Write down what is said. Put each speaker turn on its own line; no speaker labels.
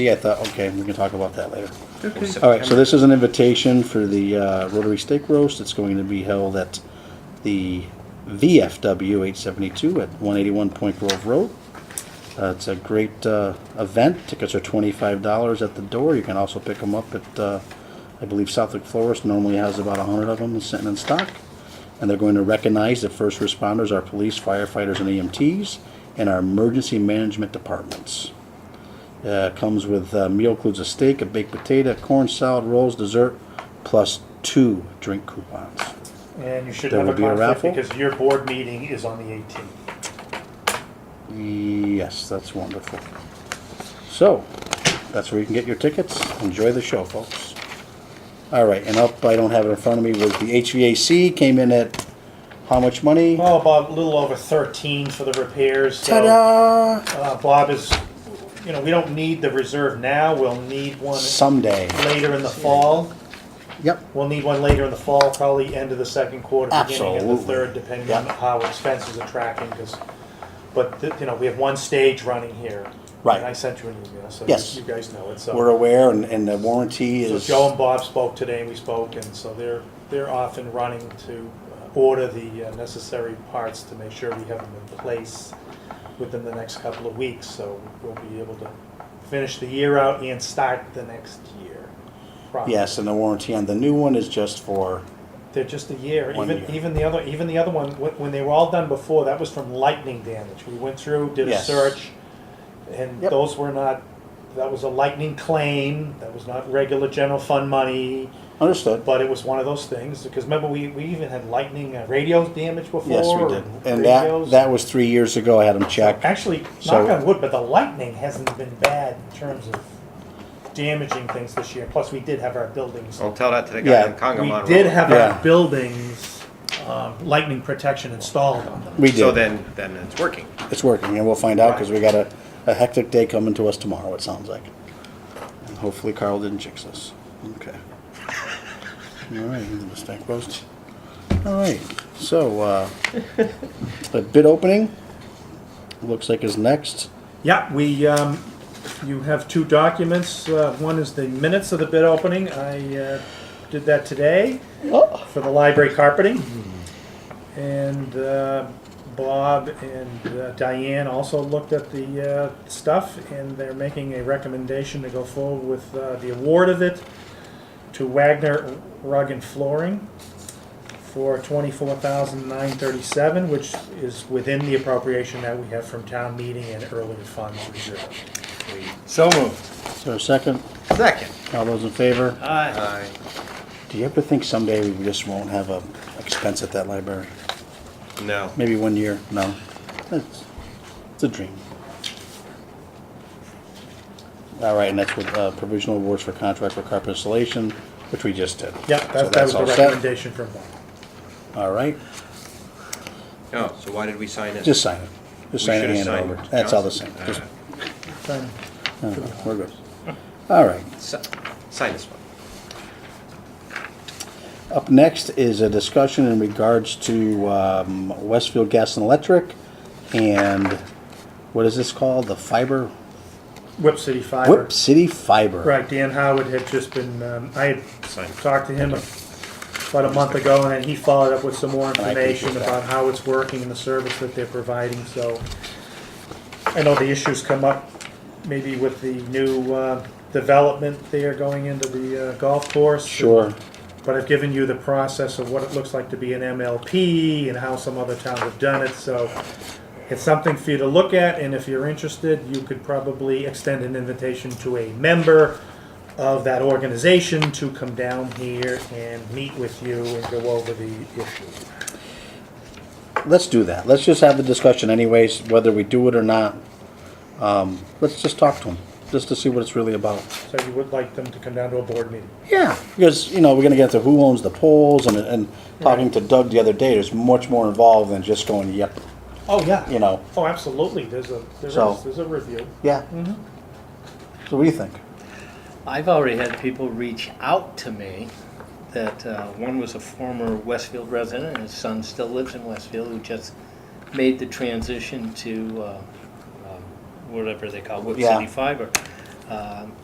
Yeah, I thought, okay, we can talk about that later.
Okay.
All right, so this is an invitation for the uh, Rotary Steak Roast. It's going to be held at the VFW 872 at 181 Point Grove Road. Uh, It's a great uh, event. Tickets are $25 at the door. You can also pick them up at, uh, I believe Southwick Florist normally has about 100 of them sitting in stock. And they're going to recognize the first responders, our police, firefighters, and E EMTs, and our emergency management departments. Uh, comes with uh, meal includes a steak, a baked potato, corn salad, rolls, dessert, plus two drink coupons.
And you should
There
have a
will be a
conflict
raffle?
because your board meeting is on the 18th.
Yes, that's wonderful. So, that's where you can get your tickets. Enjoy the show, folks. All right, and up, I don't have it in front of me, was the HVAC came in at how much money?
Well, about a little over 13 for the repairs. So,
Ta-da!
Uh, Bob is, you know, we don't need the reserve now. We'll need one
Someday.
later in the fall.
Yep.
We'll need one later in the fall, probably end of the second quarter, beginning of the
Absolutely.
third, depending on
Yeah.
how expenses are tracking. Because, but th- you know, we have one stage running here.
Right.
And I sent you an email, so
Yes.
you, you guys know it. So
We're aware and, and the warranty
So
is.
Joe and Bob spoke today, and we spoke, and so they're, they're off and running to uh, order the uh, necessary parts to make sure we have them in place within the next couple of weeks, so we'll be able to finish the year out and start the next year. properly.
Yes, and the warranty on the new one is just for,
They're just a year,
One
even,
year.
even the other, even the other one, wh- when they were all done before, that was from lightning damage. We went through, did a
Yes.
search, and
Yep.
those were not, that was a lightning claim, that was not regular general fund money.
understood.
But it was one of those things because remember we, we even had lightning uh, radio damage before.
Yes, we did. And that,
radios.
that was three years ago. I had them checked.
actually
So-
knock on wood, but the lightning hasn't been bad in terms of damaging things this year. Plus, we did have our buildings.
I'll tell that to the guy
Yeah.
in Congamon.
we did
Road.
have
Yeah.
our buildings um, lightning protection installed on them.
We did.
So then, then it's working.
It's working, and we'll find out, because we got a, a hectic day coming to us tomorrow, it sounds like. And hopefully Carl didn't jinx us. Okay. All right, the mistake roast. All right, so, uh, the bid opening, looks like is next.
Yeah, we. Um, you have two documents. Uh, one is the minutes of the bid opening. I uh, did that today.
Oh,
for the library carpeting. And uh, Bob and uh, Diane also looked at the uh, stuff, and they're making a recommendation to go forward with uh, the award of it to Wagner Rug and Flooring for twenty-four thousand nine thirty-seven, which is within the appropriation that we have from town meeting and earlier funds reserve.
So moved.
Is there a second?
Second.
All those in favor?
Aye.
Do you ever think someday we just won't have a expense at that library?
No.
Maybe one year? No. It's, it's a dream. All right, and that's with uh, provisional awards for contract for carpet installation, which we just did.
Yep,
So
that- that was the
all set.
recommendation from Bob.
All right,
No. Oh, So why did we sign it?
just sign it. Just
We
sign it
should've
and hand it
signed
over.
it.
That's all the same.
Uh,
Just,
Fine.
uh, we're good. All right.
si- Sign this one.
Up next is a discussion in regards to um, Westfield Gas and Electric and what is this called? The fiber?
Whip City Fiber.
Whip City Fiber.
Right, Dan Howard had just been, um, I
Sign.
had talked to him about a month ago, and then he followed up with some more
I appreciate
information
that.
about how it's working and the service that they're providing, so. I know the issues come up maybe with the new, uh, development there going into the uh, golf course.
Sure.
But I've given you the process of what it looks like to be an MLP and how some other towns have done it, so it's something for you to look at, and if you're interested, you could probably extend an invitation to a member of that organization to come down here and meet with you and go over the issue.
Let's do that. Let's just have the discussion anyways, whether we do it or not. Um, let's just talk to them, just to see what it's really about.
So you would like them to come down to a board meeting?
Yeah, because, you know, we're gonna get to who owns the poles and, and talking to Doug the other day, there's much more involved than just going, yep,
Oh, yeah.
you know.
Oh, absolutely, there's a, there's,
So-
there's a review.
Yeah. So what do you think?
I've already had people reach out to me that uh, one was a former Westfield resident, and his son still lives in Westfield, who just made the transition to uh, um, whatever they call Whip
Yeah.
City Fiber. um,